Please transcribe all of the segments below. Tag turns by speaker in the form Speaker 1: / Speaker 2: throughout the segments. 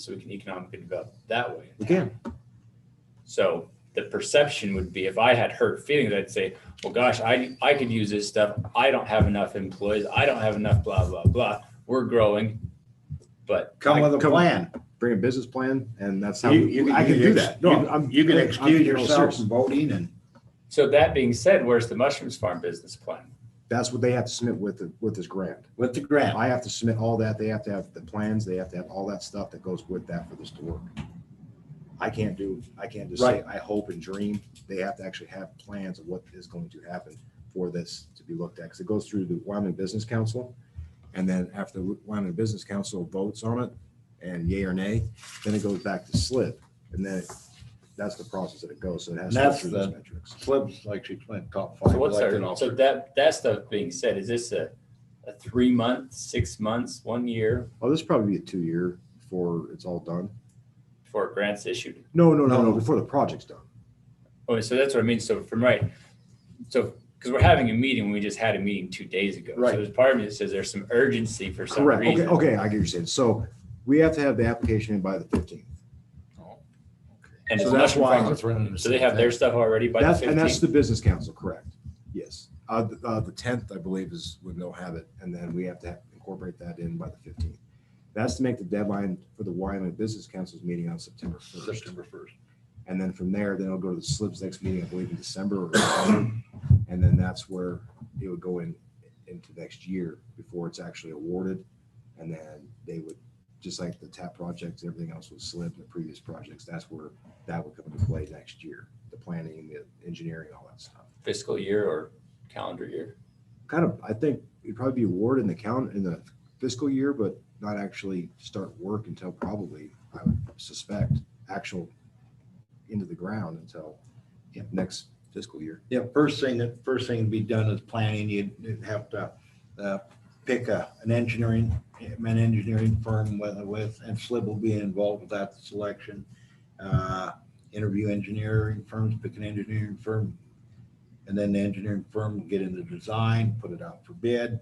Speaker 1: so we can economically develop that way.
Speaker 2: We can.
Speaker 1: So the perception would be if I had hurt feelings, I'd say, well, gosh, I, I could use this stuff. I don't have enough employees. I don't have enough, blah, blah, blah. We're growing. But
Speaker 2: Come
Speaker 3: I-
Speaker 2: with a
Speaker 3: come-
Speaker 2: plan, bring a business plan, and that's how,
Speaker 3: You- you-
Speaker 2: I can
Speaker 3: you-
Speaker 2: do that. No,
Speaker 3: you-
Speaker 2: I'm-
Speaker 3: You can
Speaker 2: I'm- I'm
Speaker 3: excuse
Speaker 2: being all
Speaker 3: yourself
Speaker 2: serious.
Speaker 3: from voting and
Speaker 1: so that being said, where's the mushrooms farm business plan?
Speaker 2: That's what they have to submit with, the- with this grant.
Speaker 3: with the grant.
Speaker 2: I have to submit all that. They have to have the plans. They have to have all that stuff that goes with that for this to work. I can't do, I can't just say,
Speaker 3: Right.
Speaker 2: I hope and dream. They have to actually have plans of what is going to happen for this to be looked at. Because it goes through the Wyoming Business Council. And then after the Wyoming Business Council votes on it and yay or nay, then it goes back to slip. And then that's the process that it goes. So it has to go
Speaker 3: That's
Speaker 2: through those
Speaker 3: the-
Speaker 2: metrics.
Speaker 3: Slips, like she went top five
Speaker 1: So what's
Speaker 3: elected
Speaker 1: our, so
Speaker 3: officers.
Speaker 1: that, that stuff being said, is this a, a three month, six months, one year
Speaker 2: Oh, this will probably be a two-year before it's all done.
Speaker 1: before grants issued?
Speaker 2: No, no, no,
Speaker 3: No.
Speaker 2: no, before the project's done.
Speaker 1: Oh, so that's what I mean. So from right, so because we're having a meeting, we just had a meeting two days ago.
Speaker 2: Right.
Speaker 1: So there's part of me that says there's some urgency for some
Speaker 2: Correct. Okay,
Speaker 1: reason.
Speaker 2: okay, I get what you're saying. So we have to have the application in by the fifteenth.
Speaker 1: And
Speaker 2: So
Speaker 1: it's
Speaker 2: that's
Speaker 1: mushroom
Speaker 2: why-
Speaker 1: farmers. So they have their stuff already by the
Speaker 2: That's, and that's
Speaker 1: fifteenth.
Speaker 2: the business council, correct? Yes. Uh, the, uh, the tenth, I believe, is when they'll have it, and then we have to incorporate that in by the fifteenth. That's to make the deadline for the Wyoming Business Council's meeting on September first.
Speaker 3: September first.
Speaker 2: And then from there, then it'll go to the SLIB's next meeting, I believe, in December or November. And then that's where it would go in, into next year before it's actually awarded. And then they would, just like the TAP projects, everything else was SLIB, the previous projects, that's where that would come into play next year. The planning, the engineering, all that stuff.
Speaker 1: Fiscal year or calendar year.
Speaker 2: Kind of, I think it'd probably be awarded in the count, in the fiscal year, but not actually start work until probably, I would suspect, actual into the ground until yeah, next fiscal year.
Speaker 3: Yeah, first thing that, first thing to be done is planning. You'd you'd have to uh, pick a, an engineering, an engineering firm with, with, and SLIB will be involved with that selection. Uh, Interview engineering firms, pick an engineering firm. And then the engineering firm will get in the design, put it out for bid.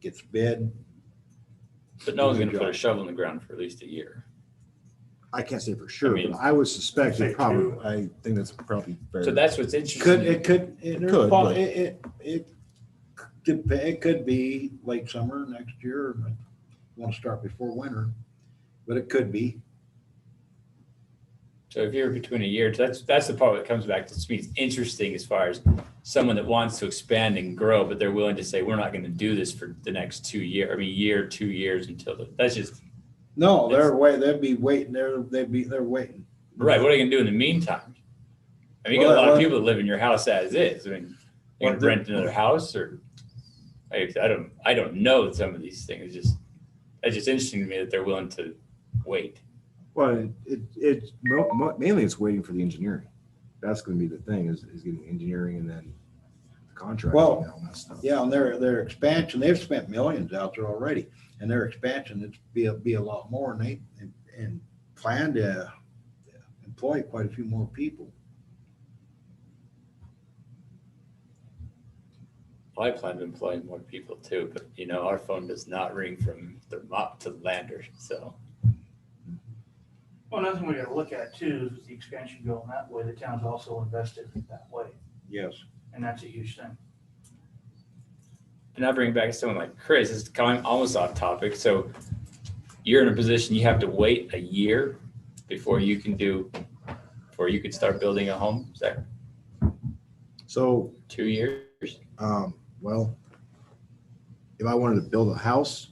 Speaker 3: Gets bid.
Speaker 1: But no one's
Speaker 3: Good
Speaker 1: gonna put a
Speaker 3: job.
Speaker 1: shovel in the ground for at least a year.
Speaker 2: I can't say for sure,
Speaker 1: mean-
Speaker 2: but I would suspect
Speaker 3: Say
Speaker 2: it
Speaker 3: two.
Speaker 2: probably, I think that's probably fair.
Speaker 1: So that's what's
Speaker 3: Could,
Speaker 1: interesting.
Speaker 3: it could, it,
Speaker 2: Could, but-
Speaker 3: it, it, it, dep- it could be late summer next year. but Want to start before winter, but it could be.
Speaker 1: So if you're between a year, that's, that's the part that comes back to me. It's interesting as far as someone that wants to expand and grow, but they're willing to say, we're not gonna do this for the next two year, I mean, year, two years until, the- that's just
Speaker 3: No, they're wait, they'd be waiting, they're, they'd be, they're waiting.
Speaker 1: Right. What are you gonna do in the meantime? I mean, you got a
Speaker 3: Well,
Speaker 1: lot of
Speaker 3: well-
Speaker 1: people that live in your house as is. I mean, you
Speaker 3: Well,
Speaker 1: gonna
Speaker 3: the-
Speaker 1: rent another house or? I, I don't, I don't know some of these things. It's just, it's just interesting to me that they're willing to wait.
Speaker 2: Well, it, it, mo- mo- mainly it's waiting for the engineering. That's gonna be the thing is, is getting engineering and then the contract and
Speaker 3: Well,
Speaker 2: all that stuff.
Speaker 3: Yeah, and their, their expansion, they've spent millions out there already, and their expansion, it's be, a- be a lot more, and they, and- and plan to employ quite a few more people.
Speaker 1: Well, I plan to employ more people too, but you know, our phone does not ring from the mop to the lander. So
Speaker 4: Well, another thing we gotta look at too is the expansion going that way. The town's also invested that way,
Speaker 3: Yes.
Speaker 4: and that's a huge thing.
Speaker 1: and I bring back someone like Chris, it's kind of almost off topic. So you're in a position you have to wait a year before you can do, before you could start building a home. Is that
Speaker 2: So,
Speaker 1: two years?
Speaker 2: um, well, if I wanted to build a house,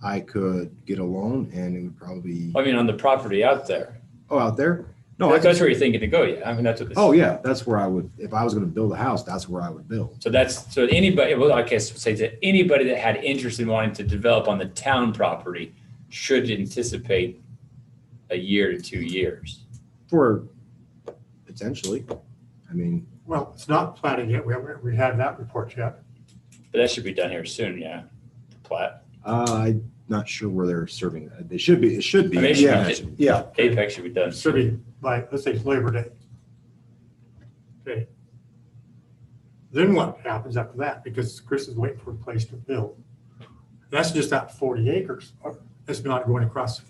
Speaker 2: I could get a loan and it would probably,
Speaker 1: I mean, on the property out there.
Speaker 2: oh, out there? No, I
Speaker 1: That's,
Speaker 2: could,
Speaker 1: that's where you're thinking to go. Yeah. I mean, that's what this.
Speaker 2: oh, yeah, that's where I would, if I was gonna build a house, that's where I would build.
Speaker 1: So that's, so anybody, well, I guess say that anybody that had interest in wanting to develop on the town property should anticipate a year to two years.
Speaker 2: For potentially, I mean,
Speaker 5: Well, it's not planning yet. We haven't, we had that report yet.
Speaker 1: But that should be done here soon. Yeah. The plat.
Speaker 2: Uh, I'm not sure where they're serving. that. They should be, it should be.
Speaker 1: I mean, it should
Speaker 2: yeah.
Speaker 1: be-
Speaker 3: Yeah,
Speaker 1: Apex should be done.
Speaker 5: It should be like, let's say it's Labor Day. Okay. Then what happens after that? Because Chris is waiting for a place to build. That's just that forty acres. It's not going across the